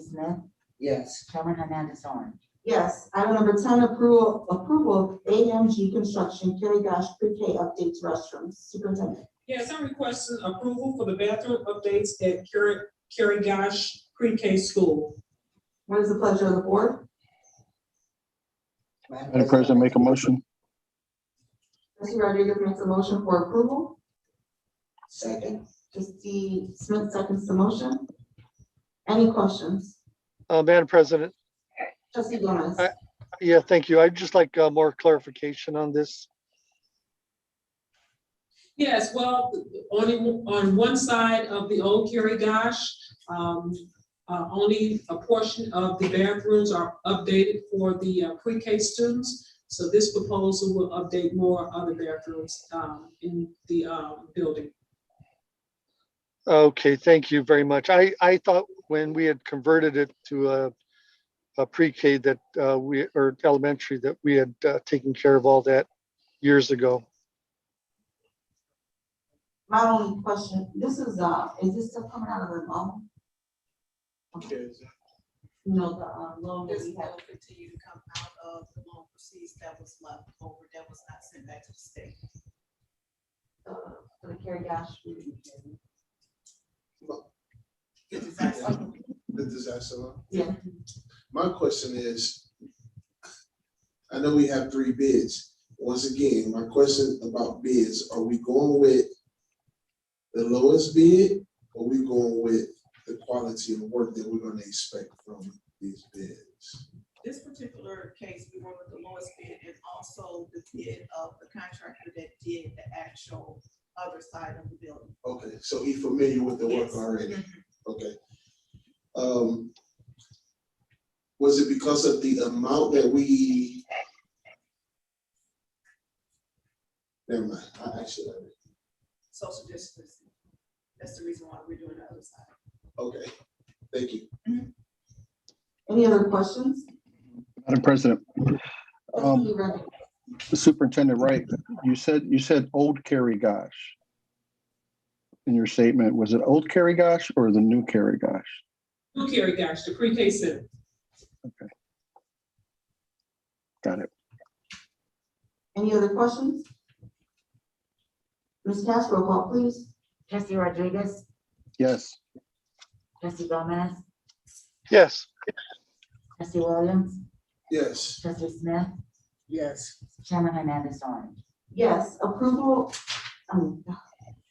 Smith, Yes. Chairman Hernandez on. Yes, item number ten, approval, approval of AMG Construction Kerry Gosh Pre-K updates restrooms. Superintendent. Yes, I'm requesting approval for the bathroom updates at Kerry, Kerry Gosh Pre-K School. What is the pleasure of the board? Madam President, make a motion. Trustee Rodriguez makes a motion for approval. Second. Trustee Smith seconds the motion. Any questions? Uh, Madam President, Trustee Gomez. Aye. yeah, thank you. I'd just like uh, more clarification on this. Yes, well, only on one side of the old Kerry Gosh, um, uh, only a portion of the bathrooms are updated for the uh, pre-K students. So this proposal will update more other bathrooms, um, in the, um, building. Okay, thank you very much. I, I thought when we had converted it to a, a pre-K that uh, we, or elementary, that we had uh, taken care of all that years ago. My only question, this is, uh, is this stuff coming out of the loan? No, the, uh, loan that This we have. will continue to come out of the loan proceeds that was left over, that was not sent back to the state. uh, for the Kerry Gosh. The disaster loan. the disaster loan? Yeah. My question is, I know we have three bids. Once again, my question about bids, are we going with the lowest bid? Or we going with the quality of work that we're gonna expect from these bids? This particular case, we went with the lowest bid and also the bid of the contractor that did the actual other side of the building. Okay, so he familiar with the work Yes. Mm-hmm. already? Okay. Um, was it because of the amount that we? Never mind, I actually, Social distancing. That's the reason why we're doing the other side. okay, thank you. Any other questions? Madam President, um, Trustee Rodriguez. Superintendent Wright, you said, you said old Kerry Gosh. In your statement, was it old Kerry Gosh or the new Kerry Gosh? New Kerry Gosh, the pre-K center. Got it. Any other questions? Ms. Castro, roll call please. Trustee Rodriguez, Yes. Trustee Gomez, Yes, Trustee Williams, Yes. Trustee Smith, Yes. Chairman Hernandez on. Yes, approval, um,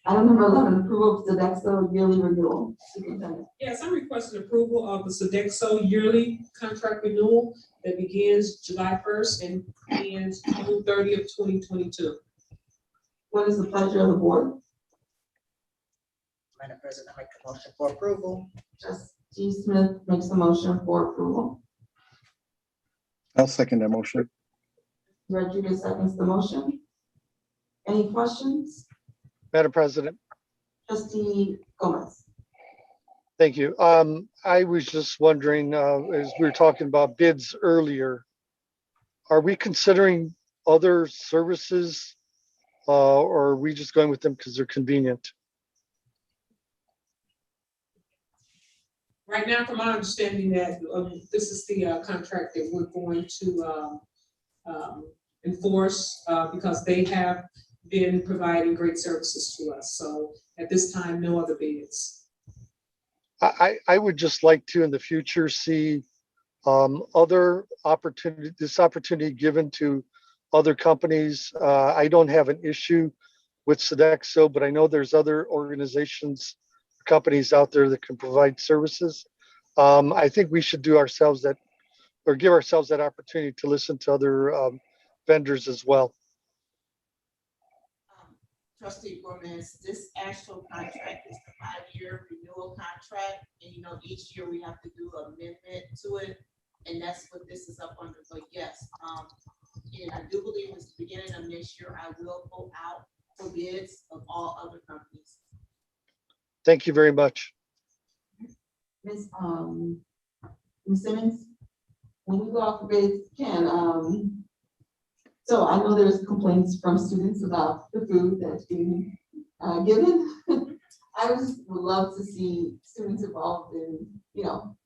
item number eleven, approval of the Sodexo yearly renewal. Superintendent. Yes, I'm requesting approval of the Sodexo yearly contract renewal that begins July first and ends June thirtieth, twenty twenty-two. What is the pleasure of the board? Madam President, I make a motion for approval. Trustee Smith makes a motion for approval. I'll second that motion. Rodriguez seconds the motion. Any questions? Madam President, Trustee Gomez. thank you. Um, I was just wondering, uh, as we were talking about bids earlier, are we considering other services? Uh, or are we just going with them because they're convenient? Right now, from my understanding that, um, this is the, uh, contract that we're going to, um, um, enforce, uh, because they have been providing great services to us. So at this time, no other bids. I, I I would just like to in the future see um, other opportunity, this opportunity given to other companies. Uh, I don't have an issue with Sodexo, but I know there's other organizations, companies out there that can provide services. Um, I think we should do ourselves that, or give ourselves that opportunity to listen to other um, vendors as well. Um, Trustee Gomez, this actual contract is the five-year renewal contract, and you know, each year we have to do amendment to it, and that's what this is up under, but yes, um, and I do believe it's the beginning of next year, I will go out for bids of all other companies. Thank you very much. Ms. Um, Ms. Simmons, when we go off the bids, can, um, so I know there's complaints from students about the food that's being, uh, given. I just would love to see students involved in, you know,